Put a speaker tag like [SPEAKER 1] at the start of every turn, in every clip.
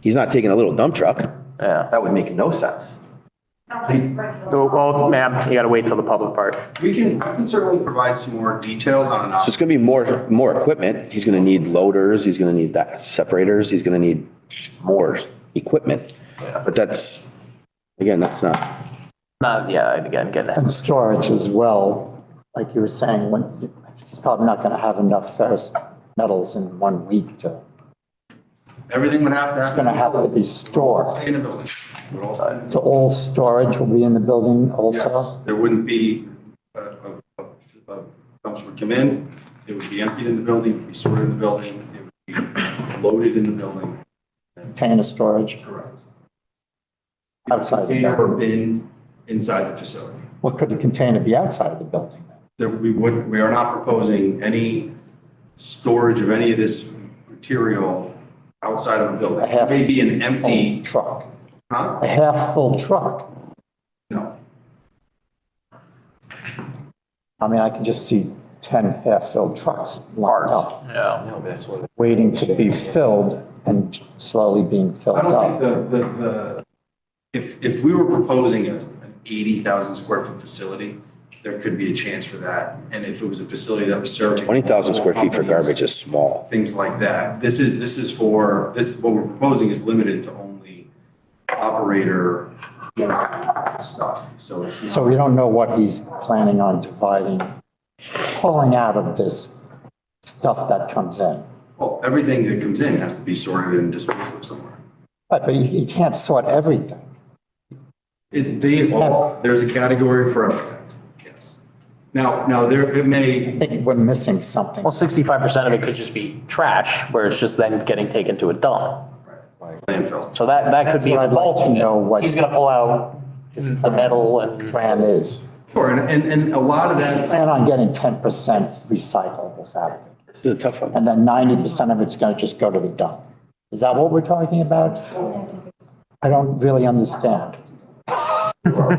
[SPEAKER 1] He's not taking a little dump truck.
[SPEAKER 2] Yeah.
[SPEAKER 1] That would make no sense.
[SPEAKER 2] So, Well, ma'am, you gotta wait till the public part.
[SPEAKER 3] We can, I can certainly provide some more details on an
[SPEAKER 1] So it's gonna be more, more equipment. He's gonna need loaders, he's gonna need that, separators, he's gonna need more equipment. But that's, again, that's not,
[SPEAKER 2] Not, Uh, yeah, and again, get that.
[SPEAKER 4] And storage as well, like you were saying, when, it's probably not gonna have enough ferrous metals in one week to,
[SPEAKER 3] Everything would have to
[SPEAKER 4] it's gonna
[SPEAKER 3] happen.
[SPEAKER 4] have to be stored.
[SPEAKER 3] Stay in the building. Would all stay in the-
[SPEAKER 4] So all storage will be in the building
[SPEAKER 3] Yes,
[SPEAKER 4] also?
[SPEAKER 3] there wouldn't be, a a- a- a dumpster would come in, it would be emptied in the building, it would be sorted in the building, it would be loaded in the building.
[SPEAKER 4] Container storage?
[SPEAKER 3] Correct.
[SPEAKER 4] Outside the
[SPEAKER 3] Container or
[SPEAKER 4] building.
[SPEAKER 3] bin inside the facility.
[SPEAKER 4] What could the container be outside of the building? then?
[SPEAKER 3] There, we would, we are not proposing any storage of any of this material outside of the building.
[SPEAKER 4] A half-
[SPEAKER 3] Maybe an empty,
[SPEAKER 4] full Truck,
[SPEAKER 3] huh?
[SPEAKER 4] a half-full truck.
[SPEAKER 3] No.
[SPEAKER 4] I mean, I can just see ten half-filled trucks lined up,
[SPEAKER 2] Yeah.
[SPEAKER 5] No, that's what.
[SPEAKER 4] waiting to be filled and slowly being filled
[SPEAKER 3] I don't
[SPEAKER 4] up.
[SPEAKER 3] think the, the, the, if, if we were proposing a, an eighty thousand square foot facility, there could be a chance for that. And if it was a facility that was serving.
[SPEAKER 1] twenty thousand square feet for
[SPEAKER 3] companies,
[SPEAKER 1] garbage is small.
[SPEAKER 3] Things like that. This is, this is for, this, what we're proposing is limited to only operator stuff. So it's not.
[SPEAKER 4] So we don't know what he's planning on dividing, pulling out of this stuff that comes in.
[SPEAKER 3] Well, everything that comes in has to be sorted and disposed of somewhere.
[SPEAKER 4] But, but you, you can't sort everything.
[SPEAKER 3] It, they all, there's a category for everything, yes. Now, now there, it may,
[SPEAKER 4] I think we're missing something.
[SPEAKER 2] Well, sixty-five percent of it could just be trash, where it's just then getting taken to a dump.
[SPEAKER 3] landfill.
[SPEAKER 2] So that, that could be.
[SPEAKER 4] That's what I'd like to
[SPEAKER 2] bulk of it.
[SPEAKER 4] know what-
[SPEAKER 2] He's gonna pull out the metal and.
[SPEAKER 4] Plan is,
[SPEAKER 3] Sure, and, and, and a lot of that,
[SPEAKER 4] plan on getting ten percent recyclables out of it.
[SPEAKER 1] This is a tough one.
[SPEAKER 4] And then ninety percent of it's gonna just go to the dump. Is that what we're talking about? I don't really understand.
[SPEAKER 3] a lot,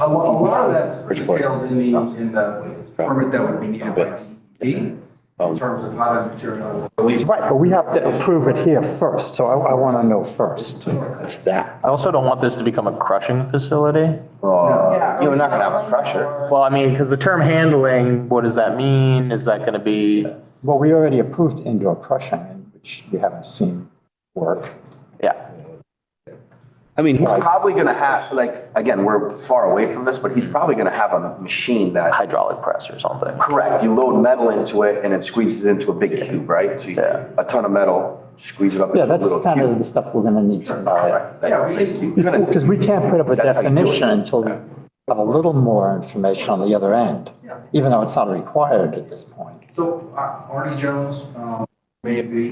[SPEAKER 3] a lot of that's
[SPEAKER 1] Bridgeport.
[SPEAKER 3] detailed in the, in the permit that would be needed by DEP
[SPEAKER 1] Um,
[SPEAKER 3] in terms of how that material will release.
[SPEAKER 4] Right, but we have to approve it here first, so I, I wanna know first.
[SPEAKER 1] That's that.
[SPEAKER 2] I also don't want this to become a crushing
[SPEAKER 4] Uh,
[SPEAKER 2] facility.
[SPEAKER 6] You're not gonna have a crusher.
[SPEAKER 2] Well, I mean, because the term handling, what does that mean? Is that gonna be,
[SPEAKER 4] Well, we already approved indoor crushing, which we haven't seen work.
[SPEAKER 2] yeah.
[SPEAKER 1] I mean,
[SPEAKER 6] He's probably gonna have, like, again, we're far away from this, but he's probably gonna have a machine that,
[SPEAKER 2] hydraulic press or something.
[SPEAKER 6] correct, you load metal into it and it squeezes into a big cube, right? So you, a ton of metal, squeeze it up into
[SPEAKER 4] Yeah,
[SPEAKER 6] a
[SPEAKER 4] that's
[SPEAKER 6] little
[SPEAKER 4] kind of
[SPEAKER 6] cube.
[SPEAKER 4] the stuff we're gonna need to know.
[SPEAKER 3] Yeah, we think you-
[SPEAKER 4] Because we can't put up a
[SPEAKER 6] That's how you do it.
[SPEAKER 4] definition until we have a little more information on the other end, even though it's not required at this point.
[SPEAKER 3] So uh, Artie Jones, um, may be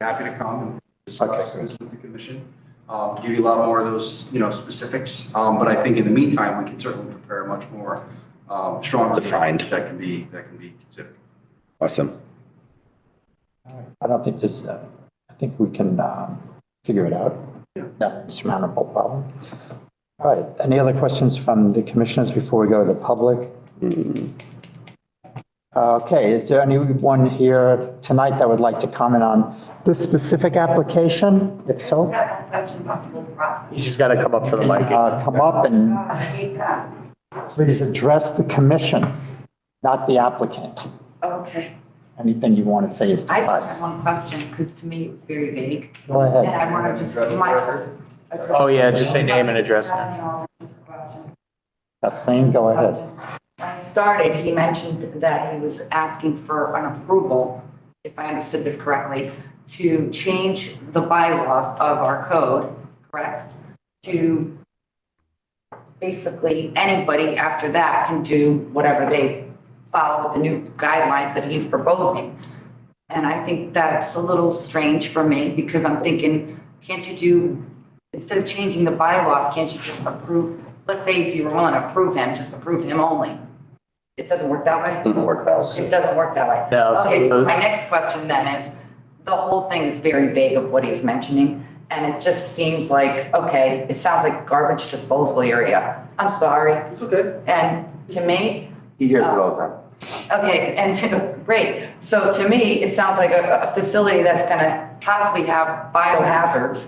[SPEAKER 3] happy to come and discuss this with the commission. Um, give you a lot more of those, you know, specifics. Um, but I think in the meantime, we can certainly prepare a much more, um, stronger.
[SPEAKER 1] Defined.
[SPEAKER 3] That can be, that can be considered.
[SPEAKER 1] awesome.
[SPEAKER 4] I don't think there's, uh, I think we can um, figure it out. Not an insurmountable problem. All right, any other questions from the commissioners before we go to the public? Okay, is there anyone here tonight that would like to comment on this specific application? If so,
[SPEAKER 7] I have a question about the whole process.
[SPEAKER 2] You just gotta come up to the mic.
[SPEAKER 4] uh, come up and
[SPEAKER 7] I hate that.
[SPEAKER 4] please address the commission, not the applicant.
[SPEAKER 7] Okay.
[SPEAKER 4] Anything you want to say is to
[SPEAKER 7] I just
[SPEAKER 4] us.
[SPEAKER 7] have one question, because to me it was very vague.
[SPEAKER 4] Go
[SPEAKER 7] And
[SPEAKER 4] ahead.
[SPEAKER 7] I want to just, my.
[SPEAKER 2] Oh, yeah, just say name and address.
[SPEAKER 4] Kathleen, go ahead.
[SPEAKER 7] When I started, he mentioned that he was asking for an approval, if I understood this correctly, to change the bylaws of our code, correct? To basically, anybody after that can do whatever they follow with the new guidelines that he's proposing. And I think that's a little strange for me because I'm thinking, can't you do, instead of changing the bylaws, can't you just approve? Let's say if you were willing to approve him, just approve him only. It doesn't work that way? Doesn't work that way. It doesn't work that way.
[SPEAKER 2] No, so-
[SPEAKER 7] Okay, so my next question then is, the whole thing is very vague of what he's mentioning. And it just seems like, okay, it sounds like garbage disposal area. I'm sorry.
[SPEAKER 3] It's okay.
[SPEAKER 7] And to me, uh,
[SPEAKER 6] He hears it all the time.
[SPEAKER 7] Okay, and great. So to me, it sounds like a, a facility that's gonna possibly have biohazards